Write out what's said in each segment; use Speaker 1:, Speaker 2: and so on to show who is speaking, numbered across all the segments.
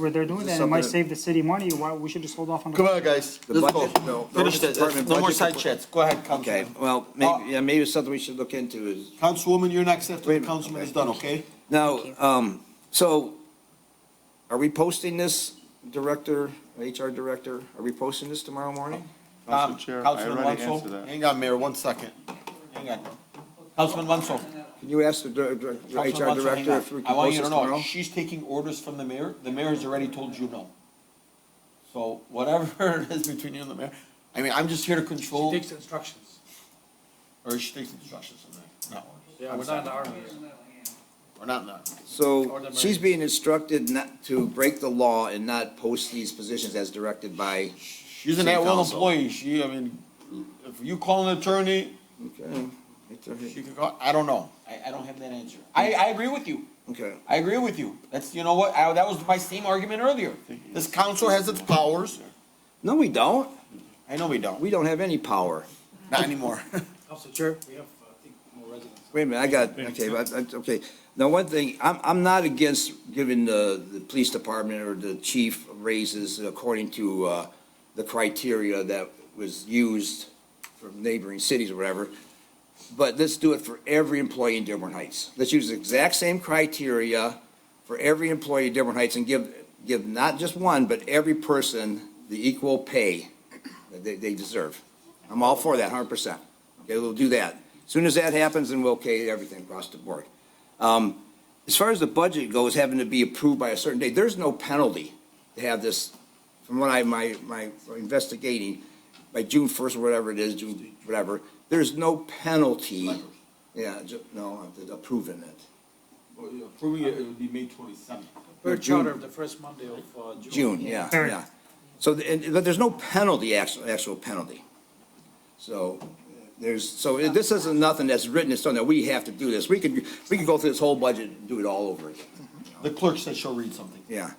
Speaker 1: where they're doing
Speaker 2: This is
Speaker 1: that, it might
Speaker 2: something-
Speaker 1: save the city money, why, we should just hold off on. the-
Speaker 3: Come on, guys,
Speaker 2: The
Speaker 3: let's
Speaker 2: budget,
Speaker 3: go.
Speaker 2: no.
Speaker 3: Finish
Speaker 2: the
Speaker 3: this,
Speaker 2: department
Speaker 3: no more
Speaker 2: budget
Speaker 3: side
Speaker 2: report.
Speaker 3: chats, go ahead,
Speaker 2: Okay,
Speaker 3: Councilman.
Speaker 2: well,
Speaker 3: Uh,
Speaker 2: maybe, yeah, maybe it's something we should look into is,
Speaker 3: Councilwoman, you're next
Speaker 2: Wait a
Speaker 3: after the
Speaker 2: minute.
Speaker 3: councilman is done, okay?
Speaker 2: now, um, so are we posting this, Director, HR Director? Are we posting this tomorrow morning?
Speaker 4: Council
Speaker 3: Um,
Speaker 4: Chair, I
Speaker 3: Councilman
Speaker 4: already
Speaker 3: Wanso?
Speaker 4: answered that.
Speaker 3: Hang on, Mayor, one second. Hang on. Councilman Wanso.
Speaker 2: Can you ask the dir- dir-
Speaker 3: Councilman
Speaker 2: HR
Speaker 3: Wanso, hang
Speaker 2: Director
Speaker 3: on.
Speaker 2: if we
Speaker 3: I
Speaker 2: can
Speaker 3: want
Speaker 2: post
Speaker 3: you
Speaker 2: this
Speaker 3: to know,
Speaker 2: tomorrow?
Speaker 3: she's taking orders from the mayor. The mayor has already told you no. So whatever it is between you and the mayor, I mean, I'm just here to control,
Speaker 5: takes instructions.
Speaker 3: or she takes instructions from the, no.
Speaker 5: Yeah, we're not in the army.
Speaker 3: We're not in that.
Speaker 2: So she's being instructed not to break the law and not post these positions as directed by,
Speaker 3: She's an
Speaker 2: City
Speaker 3: at-will
Speaker 2: council.
Speaker 3: employee. She, I mean, if you call an attorney,
Speaker 2: okay,
Speaker 3: she could call, I don't know. I, I don't have that answer. I, I agree with you.
Speaker 2: okay.
Speaker 3: I agree with you. That's, you know what, I, that was my same argument earlier. This council has its powers.
Speaker 2: No, we don't.
Speaker 3: I know we don't,
Speaker 2: We don't have any power.
Speaker 3: not anymore.
Speaker 5: Council Chair, we have, uh, I think, more residents.
Speaker 2: Wait a minute, I got, okay, but, I- okay. Now, one thing, I'm, I'm not against giving the, the police department or the chief raises according to, uh, the criteria that was used from neighboring cities or whatever. But let's do it for every employee in Dearborn Heights. Let's use the exact same criteria for every employee in Dearborn Heights and give, give not just one, but every person the equal pay that they, they deserve. I'm all for that, hundred percent. Okay, we'll do that. As Soon as that happens, then we'll okay everything across the board. Um, as far as the budget goes, having to be approved by a certain date, there's no penalty to have this, from what I, my, my investigating, by June first, or whatever it is, June, whatever, there's no penalty. Yeah, ju, no, uh, approving it,
Speaker 3: Approving it, it would be May twenty-seventh.
Speaker 2: Per
Speaker 5: Per
Speaker 2: charter
Speaker 5: charter the first Monday of, uh, June.
Speaker 2: June, yeah,
Speaker 1: Sure.
Speaker 2: yeah. So, the- and, but there's no penalty, actual, actual penalty. So, there's, so this isn't nothing that's written in stone that we have to do this. We could, we could go through this whole budget and do it all over again,
Speaker 3: The clerk said she'll read something.
Speaker 2: yeah.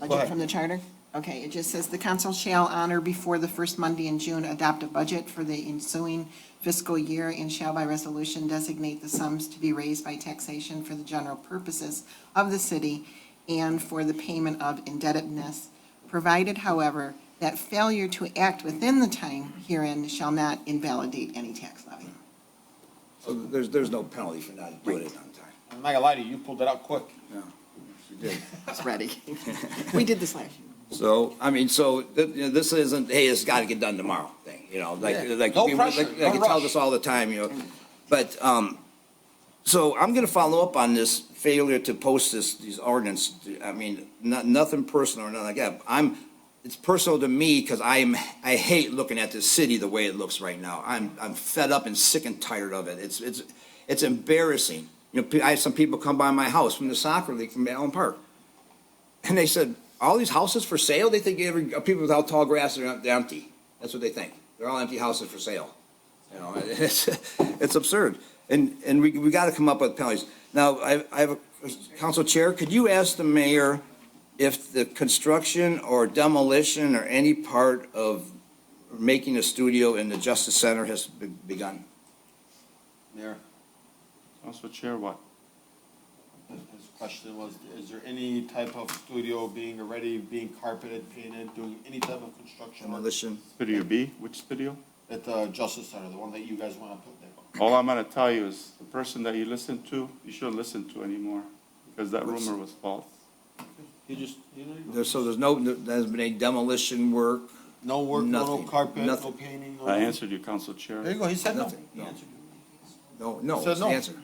Speaker 6: Budget from the charter? Okay, it just says the council shall honor before the first Monday in June adopt a budget for the ensuing fiscal year and shall by resolution designate the sums to be raised by taxation for the general purposes of the city and for the payment of indebtedness, provided however, that failure to act within the time herein shall not invalidate any tax levy.
Speaker 2: So there's, there's no penalty for not doing it on time.
Speaker 3: I'm not gonna lie to you, you pulled it out quick.
Speaker 6: It's ready. We did this last year.
Speaker 2: So, I mean, so, th- you know, this isn't, hey, it's gotta get done tomorrow thing, you know, like,
Speaker 3: Yeah.
Speaker 2: like.
Speaker 3: No
Speaker 2: we-
Speaker 3: pressure,
Speaker 2: like-
Speaker 3: no
Speaker 2: Like, it tells
Speaker 3: rush. Mm.
Speaker 2: us all the time, you know, but, um, so I'm gonna follow up on this failure to post this, these ordinance, I mean, not, nothing personal or nothing like that. I'm, it's personal to me, cause I'm, I hate looking at this city the way it looks right now. I'm, I'm fed up and sick and tired of it. It's, it's, it's embarrassing. You know, I have some people come by my house from the soccer league from Allen Park. And they said, all these houses for sale? They think every, uh, people without tall grass are em- they're empty. That's what they think. They're all empty houses for sale. You know, it's, it's absurd. And, and we, we gotta come up with penalties. Now, I, I have a, Council Chair, could you ask the mayor if the construction or demolition or any part of making a studio in the Justice Center has be- begun?
Speaker 3: Mayor,
Speaker 4: Council Chair, what?
Speaker 3: his question was, is there any type of studio being already, being carpeted, painted, doing any type of construction work
Speaker 2: Demolition?
Speaker 4: Studio B, which studio?
Speaker 3: at the Justice Center, the one that you guys wanna put there?
Speaker 4: All I'm gonna tell you is, the person that you listen to, you shouldn't listen to anymore, because that
Speaker 2: What's-
Speaker 4: rumor was false.
Speaker 3: He just, you know.
Speaker 2: There's, so there's no, there's been any demolition work?
Speaker 3: No work, no
Speaker 2: Nothing.
Speaker 3: carpet, no
Speaker 2: Nothing.
Speaker 3: painting, no.
Speaker 4: I answered you, Council Chair.
Speaker 3: There you go, he said no.
Speaker 2: Nothing,
Speaker 3: He
Speaker 2: no.
Speaker 3: answered you.
Speaker 2: No, no,
Speaker 3: Said
Speaker 2: it's the
Speaker 3: no.
Speaker 2: answer.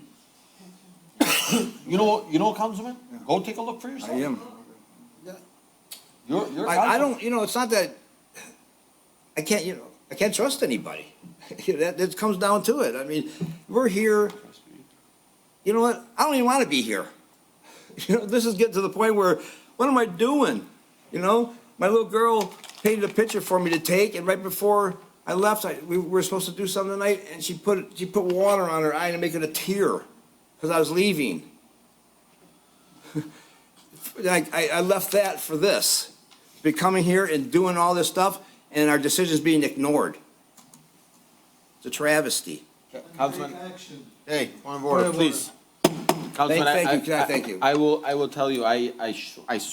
Speaker 3: You know, what? you know, what, Councilman, go take a look for
Speaker 2: I
Speaker 3: yourself.
Speaker 2: am.
Speaker 3: You're, you're.
Speaker 2: I, I
Speaker 3: Councilman.
Speaker 2: don't, you know, it's not that, I can't, you know, I can't trust anybody. That, that comes down to it. I mean, we're here, you know what, I don't even want to be here. You know, this is getting to the point where, what am I doing? You know, my little girl painted a picture for me to take, and right before I left, I, we were supposed to do something tonight, and she put, she put water on her eye to make it a tear, because I was leaving. I, I, I left that for this, becoming here and doing all this stuff, and our decisions being ignored. It's a travesty.
Speaker 3: Councilman,
Speaker 2: Hey,
Speaker 3: point of order, please. Councilman,
Speaker 2: Thank-
Speaker 3: I-
Speaker 2: thank you,
Speaker 3: I-
Speaker 2: thank you.
Speaker 3: I I will, I will tell you, I, I, sh- I